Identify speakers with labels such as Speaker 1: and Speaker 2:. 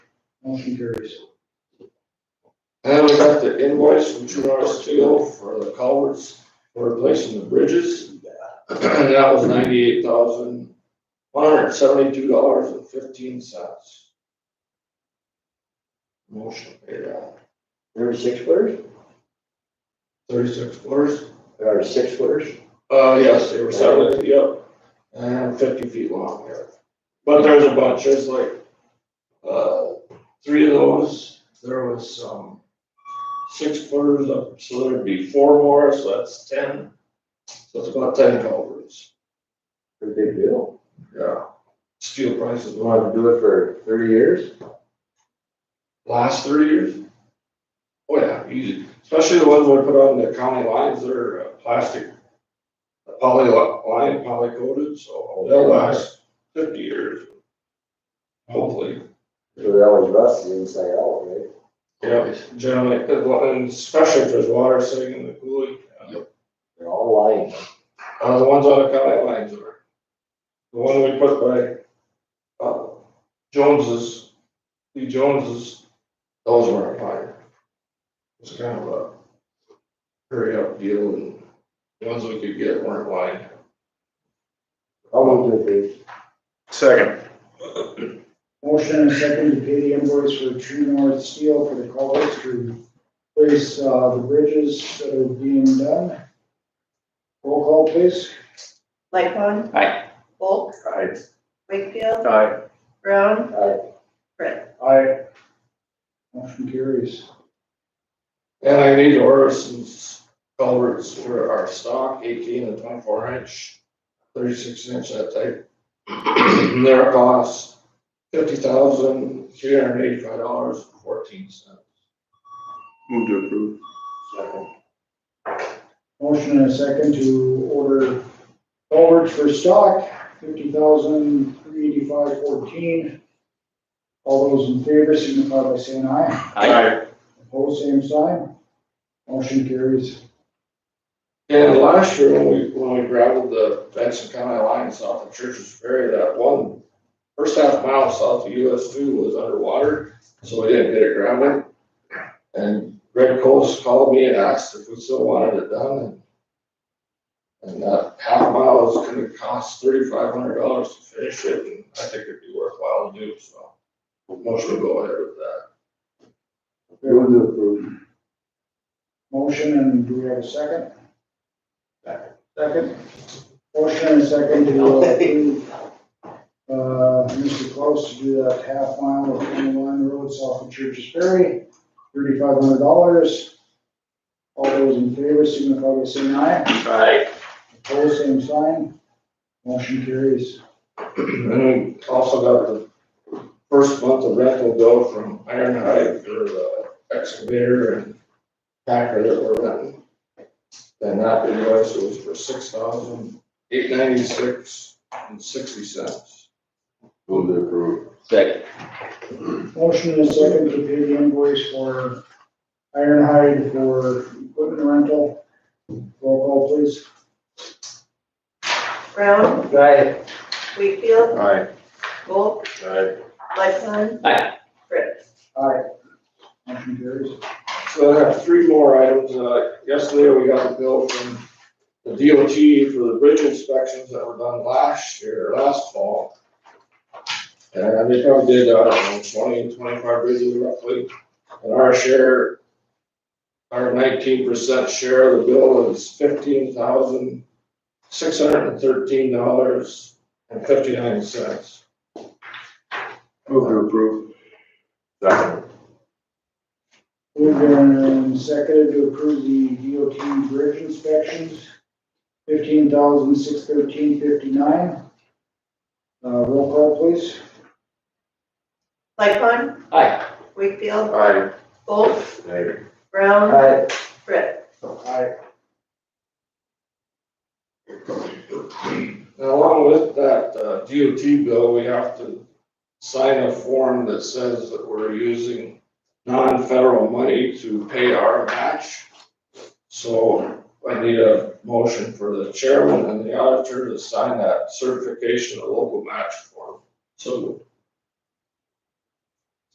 Speaker 1: Motion carries.
Speaker 2: And we got the invoice from Trudar Steel for the culverts, for replacing the bridges. And that was ninety-eight thousand, one hundred seventy-two dollars and fifteen cents. Motion paid out,
Speaker 3: There are six footers?
Speaker 2: thirty-six footers,
Speaker 3: There are six footers?
Speaker 2: uh, yes, they were seven, yep, and fifty feet long here. But there's a bunch, there's like, uh, three of those, there was, um, six footers up, so there'd be four more, so that's ten. So it's about ten culverts,
Speaker 3: Pretty big deal.
Speaker 2: yeah. Steel prices
Speaker 3: You
Speaker 2: went up
Speaker 3: want to do it for thirty years?
Speaker 2: last thirty years. Oh, yeah, easy, especially the ones we put on the county lines, they're uh, plastic. uh, Poly line, poly coated,
Speaker 3: Oh,
Speaker 2: so they'll last fifty years. Hopefully,
Speaker 3: So they always rust the inside out, right?
Speaker 2: yeah, generally, 'cause wa- and especially if there's water sitting in the cooling.
Speaker 3: They're all lying.
Speaker 2: Uh, the ones on the county lines are. The one we put by, uh, Jones's, the Joneses, those were on fire. It's kind of a hurry up deal and the ones we could get weren't lined.
Speaker 3: I'll move to approve.
Speaker 4: Second.
Speaker 1: Motion and second to pay the invoice for True North Steel for the culverts to replace, uh, the bridges that are being done. Roll call please.
Speaker 5: Lightfon.
Speaker 4: Aye.
Speaker 5: Volk,
Speaker 4: Aye.
Speaker 5: Wakefield,
Speaker 4: Aye.
Speaker 5: Brown,
Speaker 3: Aye.
Speaker 1: Aye. Motion carries.
Speaker 2: And I need to order some culverts for our stock, eighteen and twenty-four inch, thirty-six inch that type. And Their cost, fifty thousand, three hundred and eighty-five dollars and fourteen cents.
Speaker 4: Move to approve.
Speaker 3: Second.
Speaker 1: Motion and a second to order culverts for stock, fifty thousand, three eighty-five, fourteen. All those in favor signify by saying aye.
Speaker 4: Aye.
Speaker 1: Opposed, same sign. Motion carries.
Speaker 2: And last year, when we, when we gravelled the Benson County line south of Church's Ferry, that one, first half mile south of US two was underwater, so we didn't get it gravelled. And Greg Coles called me and asked if we still wanted it done, and and that half mile is gonna cost thirty-five hundred dollars to finish it, and I think it'd be worthwhile to do, so. Motion to go ahead with that.
Speaker 3: Move to approve.
Speaker 1: Motion and do we have a second? Second. Motion and a second to uh, approve, uh, Mr. Close to do that half mile of county line road south of Church's Ferry, thirty-five hundred dollars. All those in favor signify by saying aye.
Speaker 4: Aye.
Speaker 1: Opposed, same sign. Motion carries.
Speaker 2: And we also got the first month of rental bill from Iron Height for the excavator and packer that were renting. And that invoice was for six thousand eight ninety-six and sixty cents.
Speaker 3: Move to approve.
Speaker 4: Second.
Speaker 1: Motion and a second to pay the invoice for Ironhide for equipment rental. Roll call please.
Speaker 5: Brown,
Speaker 3: Aye.
Speaker 5: Wakefield,
Speaker 4: Aye.
Speaker 5: Volk,
Speaker 4: Aye.
Speaker 5: Lightfon.
Speaker 4: Aye.
Speaker 5: Fritz.
Speaker 1: Aye. Motion carries.
Speaker 2: So I have three more items. Uh, yesterday we got a bill from the DOT for the bridge inspections that were done last year, last fall. And they probably did, uh, I don't know, 20, 25 bridges roughly. And our share, our nineteen percent share of the bill is fifteen thousand, six hundred and thirteen dollars and fifty-nine cents.
Speaker 4: Move to approve. Second.
Speaker 1: Moved and seconded to approve the DOT bridge inspections, fifteen thousand six thirteen fifty-nine. Uh, roll call please.
Speaker 5: Lightfon.
Speaker 4: Aye.
Speaker 5: Wakefield,
Speaker 4: Aye.
Speaker 5: Volk,
Speaker 4: Aye.
Speaker 5: Brown,
Speaker 3: Aye.
Speaker 5: Fritz.
Speaker 1: Aye.
Speaker 2: And along with that uh, DOT bill, we have to sign a form that says that we're using non-federal money to pay our match. So I need a motion for the chairman and the auditor to sign that certification of local match form. So